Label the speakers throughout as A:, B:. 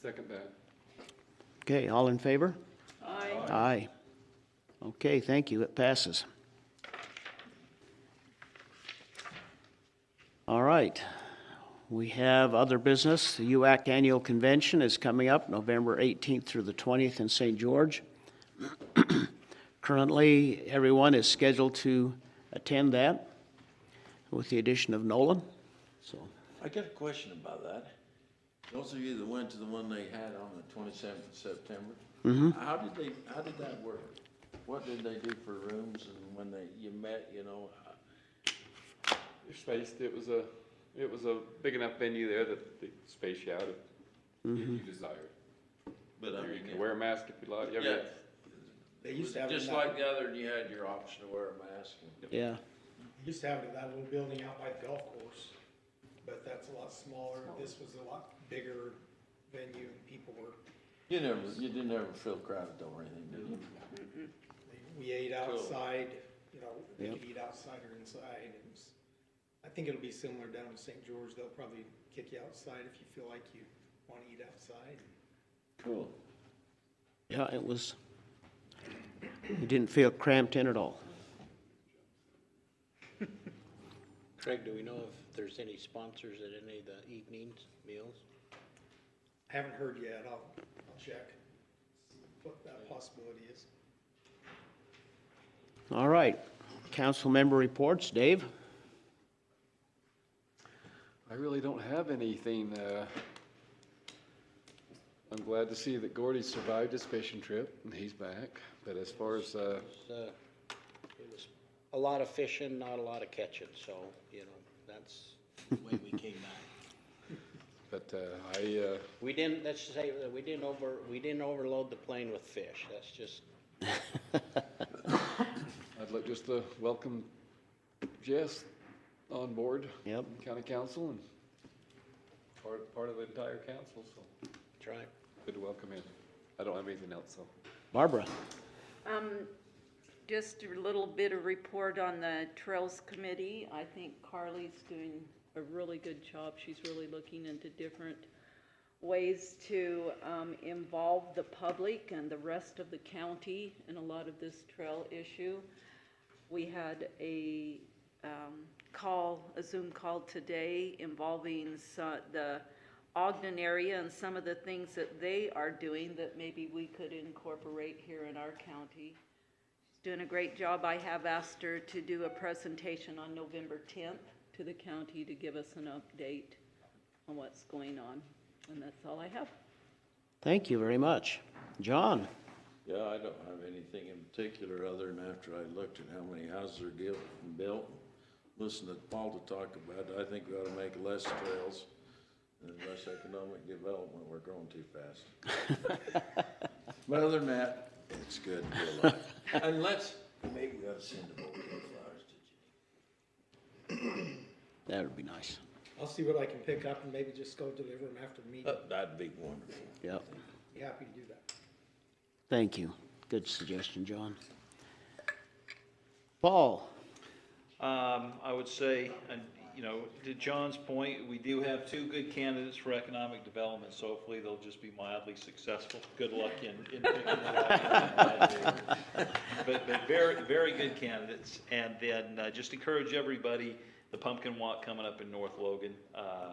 A: Second that.
B: Okay, all in favor? Aye. Aye. Okay, thank you, it passes. All right, we have other business. The UAC Annual Convention is coming up November 18th through the 20th in St. George. Currently, everyone is scheduled to attend that, with the addition of Nolan, so.
C: I got a question about that. Those of you that went to the one they had on the twenty-seventh of September, how did they, how did that work? What did they do for rooms and when they, you met, you know?
A: You're spaced, it was a, it was a big enough venue there that they space you out if if you desired.
C: But I
A: You
C: mean,
A: can wear a mask if you like, I mean,
C: yeah.
D: They used to have it in
C: Just
D: that,
C: like the other, you had your option to wear a mask and.
B: Yeah,
D: used to have it in that little building out by the golf course, but that's a lot smaller. This was a lot bigger venue and people were,
C: You never, you didn't ever feel crowded or anything, did you?
D: we ate outside, you know, we
B: Yep.
D: could eat outside or inside. It was, I think it'll be similar down in St. George. They'll probably kick you outside if you feel like you want to eat outside.
C: Cool.
B: yeah, it was, you didn't feel cramped in at all.
E: Craig, do we know if there's any sponsors at any of the evenings, meals?
D: I haven't heard yet. I'll, I'll check what that possibility is.
B: All right, council member reports, Dave?
A: I really don't have anything, uh, I'm glad to see that Gordy survived his fishing trip and he's back, but as far as, uh,
E: It's, uh, It was a lot of fishing, not a lot of catching, so, you know, that's the way we came back.
A: but, uh, I, uh,
E: We didn't, let's just say that we didn't over, we didn't overload the plane with fish, that's just,
A: I'd like just to welcome Jess on board.
B: Yep.
A: County Council and part, part of the entire council, so
E: that's right.
A: good to welcome him. I don't have anything else, so.
B: Barbara?
F: Um, just a little bit of report on the Trails Committee. I think Carly's doing a really good job. She's really looking into different ways to, um, involve the public and the rest of the county in a lot of this trail issue. We had a, um, call, a Zoom call today involving so- the Ogden area and some of the things that they are doing that maybe we could incorporate here in our county. She's doing a great job. I have asked her to do a presentation on November tenth to the county to give us an update on what's going on. And that's all I have.
B: Thank you very much. John?
C: Yeah, I don't have anything in particular, other than after I looked at how many houses are built, built, listened to Paul to talk about it, I think we ought to make less trails and less economic development, we're growing too fast. But other than that, it's good to be alive. And let's, maybe we ought to send a bouquet of flowers to Jenny.
B: That would be nice.
D: I'll see what I can pick up and maybe just go deliver them after the meeting.
C: That- Oh, That'd be wonderful.
B: Yep.
D: Be happy to do that.
B: Thank you. Good suggestion, John. Paul?
G: Um, I would say, and, you know, to John's point, we do have two good candidates for economic development, so hopefully they'll just be mildly successful. Good luck in, in picking it up. But, but very, very good candidates. And then, uh, just encourage everybody, the pumpkin walk coming up in North Logan. Uh,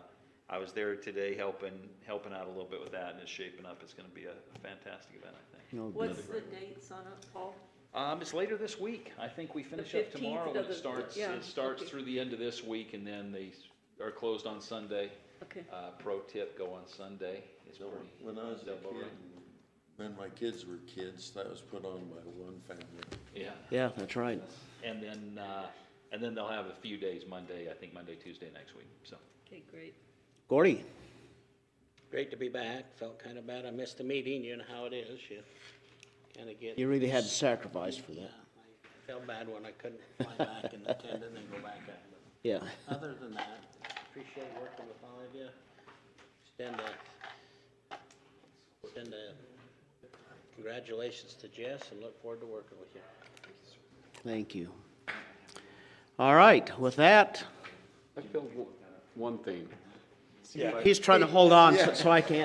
G: I was there today helping, helping out a little bit with that and it's shaping up. It's gonna be a fantastic event, I think.
B: No good.
F: What's the dates on it, Paul?
G: Um, it's later this week. I think we finish up
F: 15th
G: tomorrow
F: of
G: and
F: the-
G: it starts,
F: yeah,
G: it starts
F: okay.
G: through the end of this week and then they s- are closed on Sunday.
F: Okay.
G: Uh, pro tip, go on Sunday. It's pretty.
C: When I was a
G: double
C: kid,
G: ring.
C: when my kids were kids, that was put on by one family.
G: Yeah.
B: Yeah, that's right.
G: And then, uh, and then they'll have a few days, Monday, I think Monday, Tuesday next week, so.
F: Okay, great.
B: Gordy?
E: Great to be back, felt kind of bad, I missed the meeting, you know how it is, you kind of get.
B: You really had to sacrifice for
E: Yeah,
B: that.
E: I Felt bad when I couldn't fly back and attend and then go back out. but-
B: Yeah.
E: Other than that, appreciate working with all of you. Extend a, extend a congratulations to Jess and look forward to working with you.
B: Thank you. All right, with that,
A: I feel one thing.
B: he's trying to hold on so- so I can